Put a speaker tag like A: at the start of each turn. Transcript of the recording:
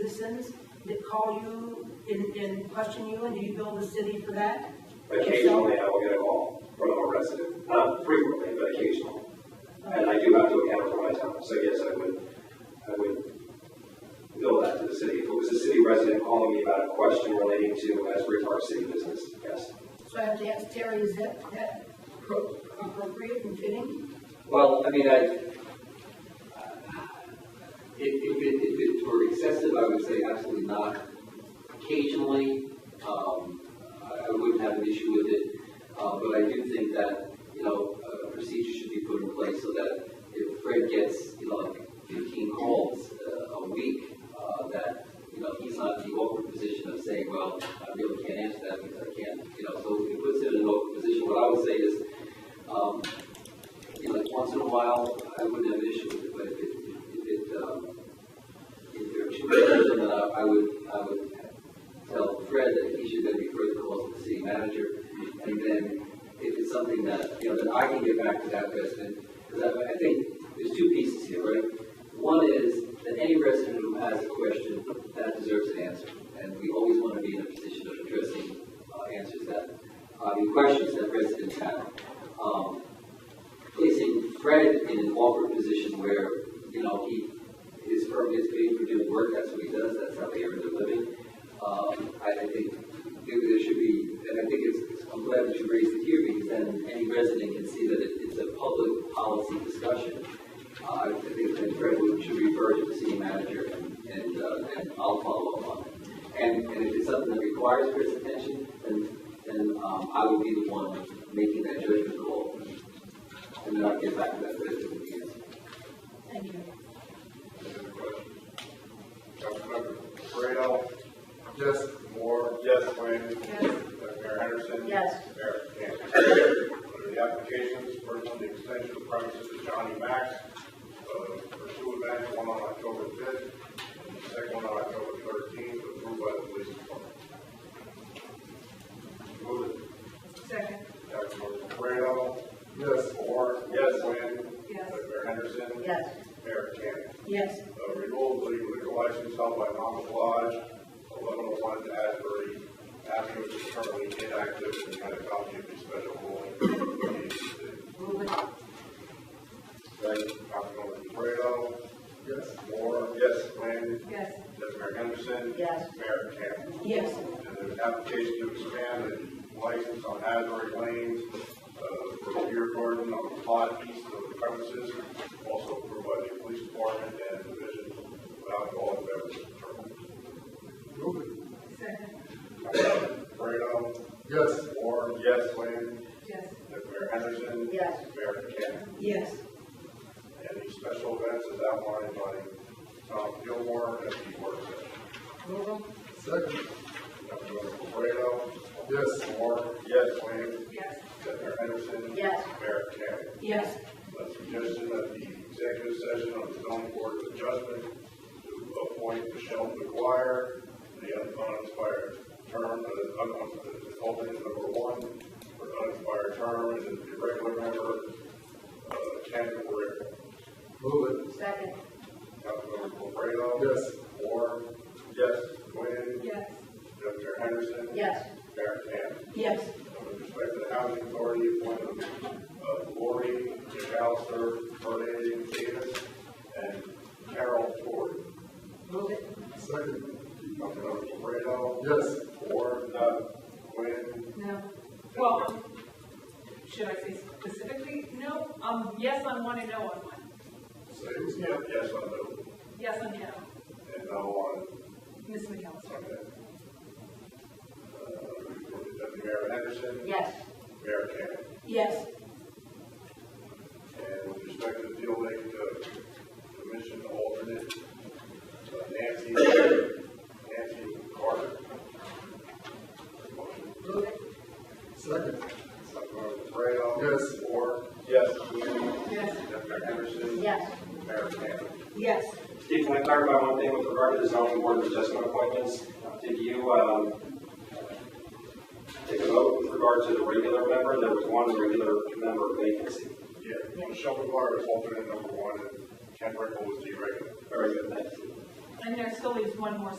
A: citizens that call you and, and question you, and do you bill the city for that?
B: Occasionally, I will get a call from a resident, not frequently, but occasionally. And I do have to account for my time, so yes, I would, I would bill that to the city. If it was a city resident calling me about a question relating to Asbury Park city business, yes.
A: So I have to ask Terry, is that, that pro- appropriate and fitting?
C: Well, I mean, I, if, if it, if it were excessive, I would say absolutely not. Occasionally, um, I, I wouldn't have an issue with it, uh, but I do think that, you know, a procedure should be put in place so that if Fred gets, you know, like fifteen calls, uh, a week, uh, that, you know, he's not in the awkward position of saying, well, I really can't answer that because I can't, you know, so it puts him in an awkward position. What I would say is, um, you know, like once in a while, I wouldn't have an issue with it, but if it, if it, um, if there are two people, then uh, I I would, I would tell Fred that he should then refer the call to the city manager, and then if it's something that, you know, that I can get back to that resident, because I, I think there's two pieces here, right? One is that any resident who has a question, that deserves an answer, and we always want to be in a position of addressing, uh, answers that, uh, the questions that residents have. Um, placing Fred in an awkward position where, you know, he, his firm gets paid for doing work, that's what he does, that's how they earn their living. Um, I, I think there there should be, and I think it's, it's- I'm glad that you raised it here, because then any resident can see that it, it's a public policy discussion. Uh, I think that Fred would, should refer to the city manager, and, and, uh, and I'll follow up on it. And, and if it's something that requires Fred's attention, then, then, um, I would be the one making that judgment call. And then I'll get back to that question at the end.
A: Thank you.
D: Any other questions? Councilmember Fredo? Yes. Moore? Yes. Quinn?
A: Yes.
D: Mayor Henderson?
A: Yes.
D: Mayor Campbell. Under the applications, first one, the extension of premises to Johnny Max, uh, for two events, one on October fifth, and the second one on October thirteenth, approved by the police department. Move it.
A: Second.
D: Councilmember Fredo? Yes. Moore? Yes. Quinn?
A: Yes.
D: Mayor Henderson?
A: Yes.
D: Mayor Campbell.
A: Yes.
D: Uh, renewal of the liquor license held by Mama's Lodge, eleven oh one Asbury Avenue, which is currently inactive, and you had a copy of the special ruling.
A: Move it.
D: Thank you, Councilmember Fredo. Yes. Moore. Yes. Quinn.
A: Yes.
D: Deputy Mayor Henderson.
A: Yes.
D: Mayor Campbell.
A: Yes.
D: And there's an application to expand the license on Asbury Lanes, uh, for a beer garden on the plot east of the premises, also approved by the police department and division of alcohol and beverage control.
A: Second.
D: Fredo? Yes. Moore? Yes. Quinn?
A: Yes.
D: Deputy Mayor Henderson?
A: Yes.
D: Mayor Campbell.
A: Yes.
D: And these special events as outlined by Tom Gilmore at the work session.
A: Move them.
D: Second. Councilmember Fredo?
E: Yes.
D: Moore? Yes. Quinn?
A: Yes.
D: Deputy Mayor Henderson?
A: Yes.
D: Mayor Campbell.
A: Yes.
D: A suggestion that the executive session of the zoning board of adjustment to appoint Michelle McGuire, to the unexpired term, uh, un- uh, alternate number one, for unexpired term, and the regular member, uh, Ken Rick.
E: Move it.
A: Second.
D: Councilmember Correa.
E: Yes.
D: Moore. Yes. Quinn.
A: Yes.
D: Dr. Henderson.
A: Yes.
D: Mayor Campbell.
A: Yes.
D: With respect to the housing authority, appointment of Lori McAllister, Fernandez Davis, and Carol Ford.
A: Move it.
E: Second.
D: Councilmember Fredo?
E: Yes.
D: Ford, uh, Quinn,
A: No.
F: Well, should I say specifically? No, um, yes on one and no on one.
D: Sims, yeah, yes, on those,
F: Yes on no.
D: and no on,
F: Ms. McAllister?
D: okay. Uh, Deputy Mayor Henderson?
A: Yes.
D: Mayor Campbell?
A: Yes.
D: And with respect to the Deal Lake uh, Commission alternate, uh, Nancy, Nancy Carter. Motion,
A: Move it.
E: Second.
D: Councilmember Fredo?
E: Yes.
D: Moore? Yes. Quinn?
F: Yes.
D: Dr. Henderson?
A: Yes.
D: Mayor Campbell?
A: Yes.
B: Steve, can I clarify one thing with regard to the zoning board of adjustment appointments? Did you, um, take a vote with regard to the regular member? There was one regular member vacancy.
D: Yeah, Michelle McGuire is alternate number one, and Ken Rickle is the regular.
B: Very good, thank you.
A: And there still leaves one more